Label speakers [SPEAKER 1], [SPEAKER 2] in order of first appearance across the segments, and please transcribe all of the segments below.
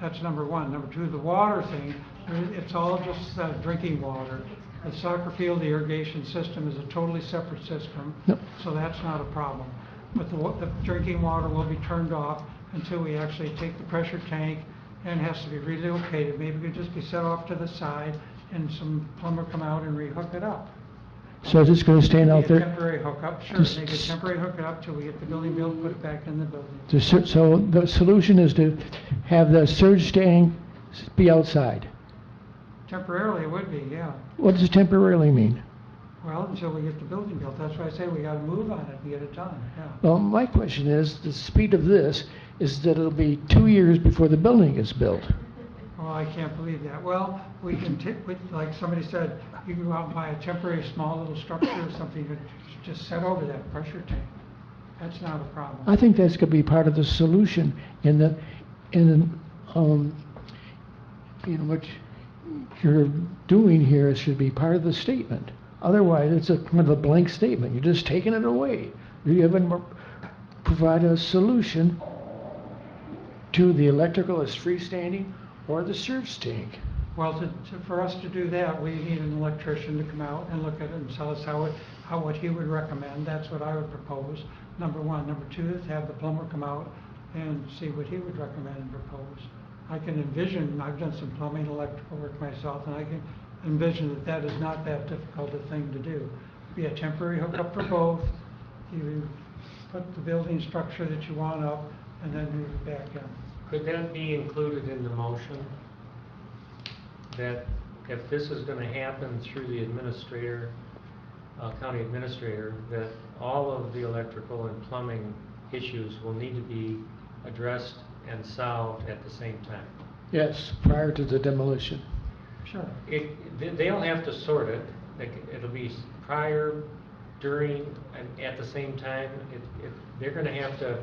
[SPEAKER 1] That's number one. Number two, the water thing, there- it's all just uh, drinking water. The soccer field, the irrigation system is a totally separate system.
[SPEAKER 2] Yep.
[SPEAKER 1] So that's not a problem. But the, wa- the drinking water will be turned off until we actually take the pressure tank and it has to be relocated. Maybe it could just be set off to the side and some plumber come out and rehook it up.
[SPEAKER 2] So is this gonna stand out
[SPEAKER 1] Be a
[SPEAKER 2] there?
[SPEAKER 1] Temporary hookup, sure,
[SPEAKER 2] Just-
[SPEAKER 1] make a temporary hookup till we get the building built, put it back in the building.
[SPEAKER 2] The sur- So the solution is to have the surge tank be outside.
[SPEAKER 1] Temporarily, it would be, yeah.
[SPEAKER 2] What does temporarily mean?
[SPEAKER 1] Well, until we get the building built, that's why I say we gotta move on it and get it done, yeah.
[SPEAKER 2] Well, my question is, the speed of this is that it'll be two years before the building is built.
[SPEAKER 1] Oh, I can't believe that. Well, we can ti- we like somebody said, you can go out and buy a temporary small little structure or something, to just set over that pressure tank. That's not a
[SPEAKER 2] I
[SPEAKER 1] problem.
[SPEAKER 2] think that's gonna be part of the solution in the, in, um, you know, what you're doing here should be part of the statement. Otherwise, it's a kind of a blank statement. You're just taking it away. You haven't provided a solution to the electrical as freestanding or the surge tank.
[SPEAKER 1] Well, to, to, for us to do that, we need an electrician to come out and look at it and tell us how it, how, what he would recommend. That's what I would propose, number one. Number two is have the plumber come out and see what he would recommend and propose. I can envision, I've done some plumbing, electrical work myself, and I can envision that that is not that difficult a thing to do. Be a temporary hookup for both, you put the building structure that you want up, and then move it back in.
[SPEAKER 3] Could that be included in the motion? That if this is gonna happen through the administrator, uh, county administrator, that all of the electrical and plumbing issues will need to be addressed and solved at the same time?
[SPEAKER 2] Yes, prior to the demolition.
[SPEAKER 1] Sure.
[SPEAKER 3] It, they- they'll have to sort it, like, it'll be s- prior, during, and at the same time, it, it, they're gonna have to,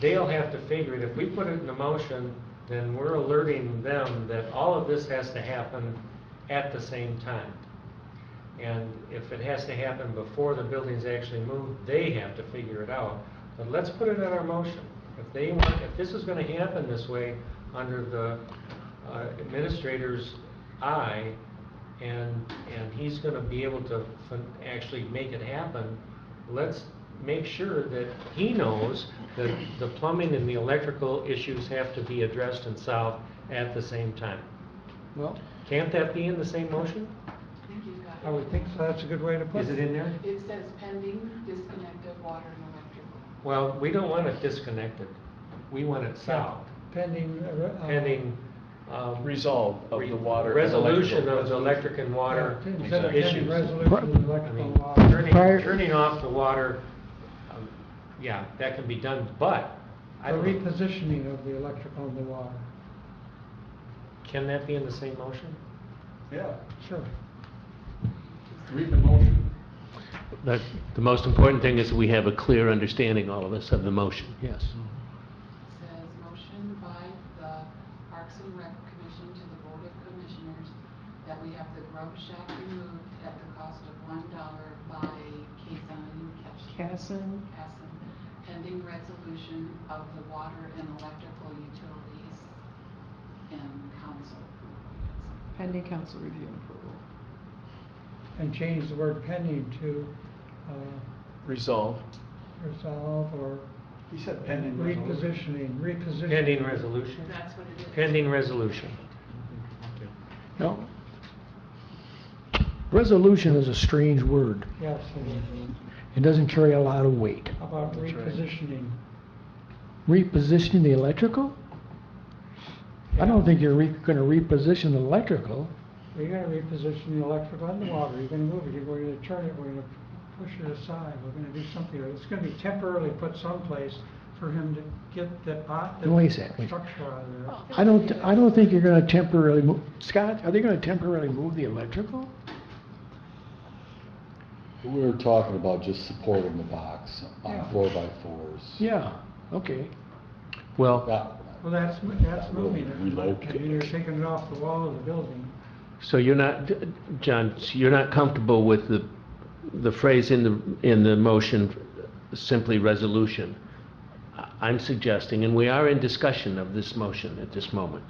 [SPEAKER 3] they'll have to figure it, if we put it in the motion, then we're alerting them that all of this has to happen at the same time. And if it has to happen before the building's actually moved, they have to figure it out. But let's put it in our motion. If they want, if this is gonna happen this way, under the uh, administrator's eye, and, and he's gonna be able to fin- actually make it happen, let's make sure that he knows that the plumbing and the electrical issues have to be addressed and solved at the same time.
[SPEAKER 2] Well,
[SPEAKER 3] Can't that be in the same motion?
[SPEAKER 4] think you've got
[SPEAKER 1] I would think so, that's a good way to put
[SPEAKER 3] Is it in there?
[SPEAKER 4] It says pending disconnect of water and electrical.
[SPEAKER 3] Well, we don't want it disconnected. We want it solved,
[SPEAKER 1] Pending.
[SPEAKER 3] Oh.
[SPEAKER 1] uh, uh,
[SPEAKER 3] pending. um,
[SPEAKER 5] Resolve of the
[SPEAKER 3] re-
[SPEAKER 5] water and
[SPEAKER 3] Resolution
[SPEAKER 5] electrical.
[SPEAKER 3] of the electric and water
[SPEAKER 1] Yeah, instead of pending
[SPEAKER 3] issues.
[SPEAKER 1] resolution,
[SPEAKER 2] Pro-
[SPEAKER 3] I
[SPEAKER 1] electrical
[SPEAKER 3] mean,
[SPEAKER 1] law.
[SPEAKER 3] turning,
[SPEAKER 2] Prior-
[SPEAKER 3] turning off the water, um, yeah, that can be done, but
[SPEAKER 1] The
[SPEAKER 3] I don't,
[SPEAKER 1] repositioning of the electrical and the water.
[SPEAKER 3] can that be in the same motion?
[SPEAKER 5] Yeah,
[SPEAKER 1] Sure.
[SPEAKER 5] read the motion.
[SPEAKER 6] That, the most important thing is we have a clear understanding, all of us, of the motion, yes.
[SPEAKER 4] It says motion by the Parks and Rec Commission to the Board of Commissioners that we have the grub shack removed at the cost of one dollar by Kazan Casson. Casson, pending resolution of the water and electrical utilities and council. approval.
[SPEAKER 7] Pending council review and approval.
[SPEAKER 1] And change the word pending to uh,
[SPEAKER 5] Resolve.
[SPEAKER 1] resolve or
[SPEAKER 5] He said
[SPEAKER 1] repositioning, repositioning.
[SPEAKER 3] Pending resolution?
[SPEAKER 4] That's what it is.
[SPEAKER 3] Pending resolution.
[SPEAKER 2] no. Resolution is a strange word.
[SPEAKER 1] Yes, and
[SPEAKER 2] It doesn't carry a lot of weight.
[SPEAKER 1] how about
[SPEAKER 5] That's right.
[SPEAKER 1] repositioning.
[SPEAKER 2] Repositioning the electrical? I don't think you're re- gonna reposition the electrical.
[SPEAKER 1] We're gonna reposition the electrical and the water, you're gonna move it, you're going to turn it, we're gonna push it aside, we're gonna do something, it's gonna be temporarily put someplace for him to get that pot,
[SPEAKER 2] Wait a second.
[SPEAKER 1] that structure out of
[SPEAKER 4] Oh.
[SPEAKER 1] there.
[SPEAKER 2] I don't, I don't think you're gonna temporarily move, Scott, are they gonna temporarily move the electrical?
[SPEAKER 8] We were talking about just supporting the box
[SPEAKER 1] Yeah.
[SPEAKER 8] on four by fours.
[SPEAKER 2] Yeah, okay.
[SPEAKER 6] Well,
[SPEAKER 8] That-
[SPEAKER 1] Well, that's, mo- that's moving it.
[SPEAKER 8] Relocate.
[SPEAKER 1] I mean, you're taking it off the wall of the building.
[SPEAKER 6] so you're not, John, so you're not comfortable with the, the phrase in the, in the motion, simply resolution? I-
[SPEAKER 3] I'm suggesting, and we are in discussion of this motion at this moment,